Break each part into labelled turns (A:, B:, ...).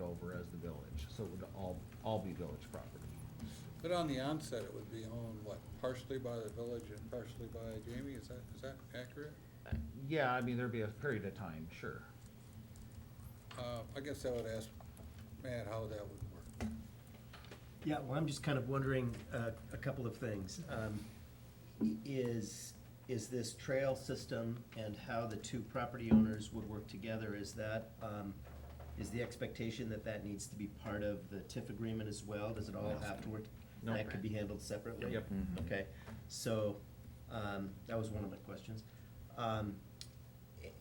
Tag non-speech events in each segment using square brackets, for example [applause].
A: over as the village, so it would all, all be village property.
B: But on the onset, it would be owned, what, partially by the village and partially by Jamie, is that, is that accurate?
A: Yeah, I mean, there'd be a period of time, sure.
B: Uh, I guess I would ask Matt how that would work.
C: Yeah, well, I'm just kind of wondering uh, a couple of things. Um, Is, is this trail system and how the two property owners would work together, is that, um, is the expectation that that needs to be part of the TIF agreement as well? Does it all have to work?
A: No.
C: That could be handled separately?
A: Yep.
C: Okay, so, um, that was one of my questions. Um,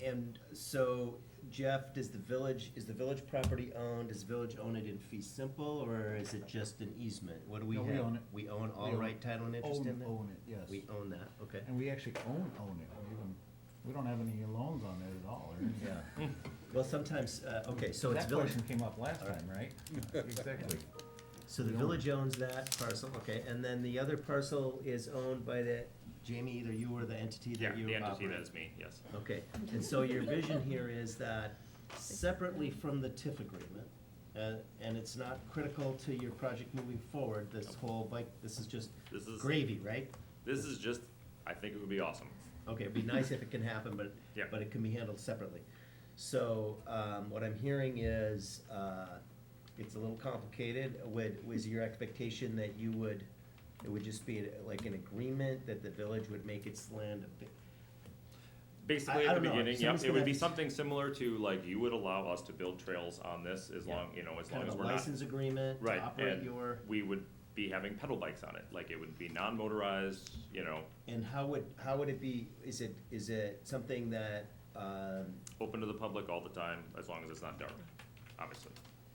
C: and so Jeff, does the village, is the village property owned, does the village own it in fee simple, or is it just an easement? What do we
D: No,
C: have?
D: we own it.
C: We own
D: We
C: all
D: own-
C: right title and interest
D: own-
C: in that?
D: Own it, yes.
C: We own that, okay.
D: And we actually own, own it. We even, we don't have any loans on it at all, or anything. [laughs]
A: Yeah.
C: Well, sometimes, uh, okay, so it's
A: That
C: village,
A: question came up last time, [laughs] right? Exactly.
C: so the
A: we own
C: village owns that parcel, okay, and then the other parcel is owned by the, Jamie, either you or the entity
E: Yeah,
C: that you
E: the entity
C: operate.
E: that is me, yes.
C: Okay, and so your vision here is that separately from the TIF agreement, uh, and it's not critical to your project moving forward, this whole bike, this is just
E: This is-
C: gravy, right?
E: This is just, I think it would be awesome.
C: Okay, it'd be nice if it can happen, but,
E: Yeah.
C: but it can be handled separately. So, um, what I'm hearing is, uh, it's a little complicated, would, was your expectation that you would, it would just be like an agreement that the village would make its land a bit,
E: Basically,
C: I
E: at the
C: don't know,
E: beginning, yep,
C: somebody's
E: it would be
C: gonna-
E: something similar to, like, you would allow us to build trails on this as
C: Yeah.
E: long, you know, as long
C: kind
E: as
C: of a
E: we're not.
C: license agreement to
E: Right,
C: operate
E: and
C: your?
E: we would be having pedal bikes on it, like, it would be non-motorized, you know,
C: And how would, how would it be, is it, is it something that, um,
E: open to the public all the time, as long as it's not dark, obviously.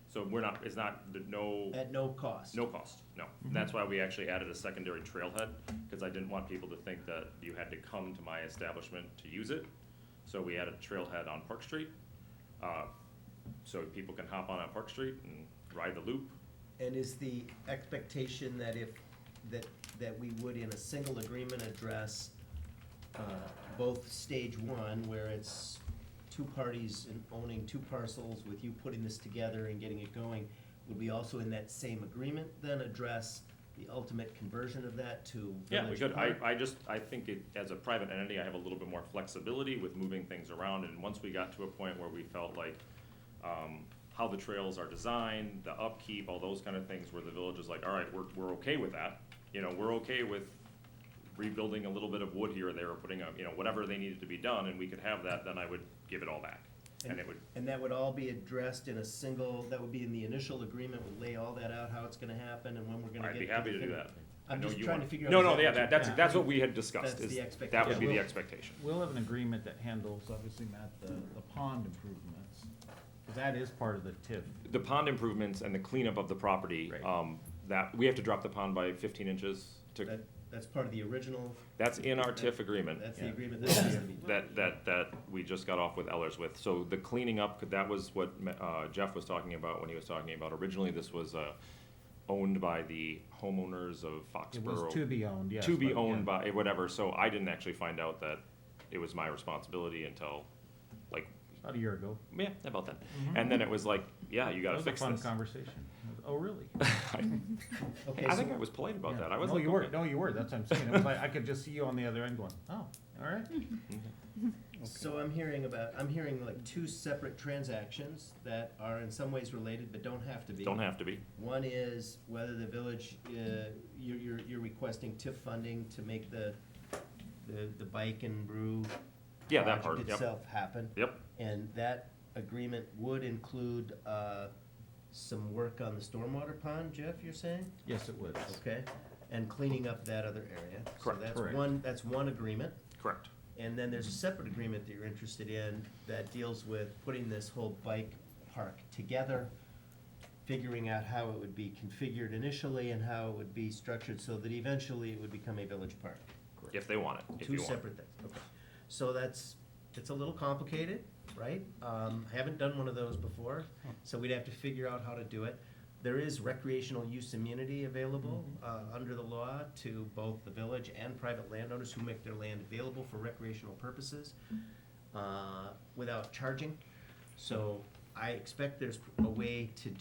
E: So we're not, it's not, the- no,
C: at no cost?
E: no cost, no. And that's why we actually added a secondary trailhead, because I didn't want people to think that you had to come to my establishment to use it. So we added a trailhead on Park Street, uh, so people can hop on on Park Street and ride the loop.
C: And is the expectation that if, that, that we would in a single agreement address, uh, both stage one, where it's two parties and owning two parcels with you putting this together and getting it going, would we also in that same agreement then address the ultimate conversion of that to
E: Yeah, we
C: Village
E: could, I,
C: Park?
E: I just, I think it, as a private entity, I have a little bit more flexibility with moving things around, and once we got to a point where we felt like, um, how the trails are designed, the upkeep, all those kind of things, where the village is like, all right, we're, we're okay with that. You know, we're okay with rebuilding a little bit of wood here or there, or putting up, you know, whatever they needed to be done, and we could have that, then I would give it all back. And it would,
C: And that would all be addressed in a single, that would be in the initial agreement, would lay all that out, how it's gonna happen and when we're gonna get.
E: I'd be happy to
C: the
E: do
C: fin-
E: that. I
C: I'm
E: know
C: just
E: you
C: trying to
E: want-
C: figure out.
E: No, no,
C: exactly
E: yeah,
C: what
E: that,
C: you-
E: that's, that's what we had discussed,
C: That's
E: is,
C: the
E: that would be the
D: expectation.
E: expectation.
D: We'll have an agreement that handles, obviously, Matt, the, the pond improvements, 'cause that is part of the TIF.
E: the pond improvements and the cleanup of the property,
A: Right.
E: um, that, we have to drop the pond by fifteen inches to,
C: That, that's part of the original,
E: that's in our TIF agreement.
C: that's the
D: Yeah.
C: agreement that has to be.
E: That, that, that we just got off with Ellers with, so the cleaning up, that was what, uh, Jeff was talking about when he was talking about originally, this was, uh, owned by the homeowners of
D: It was
E: Foxborough.
D: to be owned, yes.
E: To be
D: but, yeah.
E: owned by, whatever, so I didn't actually find out that it was my responsibility until, like,
D: About a year ago.
E: yeah, about then. And then it was like, yeah, Ah, you gotta fix
D: Mm-hmm. That was a
E: this. [laughs]
D: fun conversation. Oh, really?
C: Okay,
E: I
C: so-
E: think I was polite about
D: Yeah.
E: that, I was
D: No,
E: like,
D: you were,
E: okay.
D: no, you were, that's what I'm saying. It was like, I could just see you on the other end going, oh, all
E: [laughs]
D: right.
C: So I'm hearing about, I'm hearing like two separate transactions that are in some ways related, but don't have to be.
E: Don't have to be.
C: One is whether the village, uh, you're, you're, you're requesting TIF funding to make the, the, the bike and brew.
E: Yeah, that part,
C: project
E: yep.
C: Itself happen.
E: Yep.
C: And that agreement would include, uh, some work on the stormwater pond, Jeff, you're saying?
D: Yes, it was.
C: Okay, and cleaning up that other area.
E: Correct.
C: So that's
D: Correct.
C: one, that's one agreement.
E: Correct.
C: And then there's a separate agreement that you're interested in that deals with putting this whole bike park together, figuring out how it would be configured initially and how it would be structured so that eventually it would become a village park.
E: If they want it, if
C: Two
E: you want. it.
C: separate things, okay. So that's, it's a little complicated, right? Um, I haven't done one of those before, so we'd have to figure out how to do it. There is recreational use immunity available, uh, under the law to both the village and private landowners who make their land available for recreational purposes, uh, without charging. So I expect there's a way to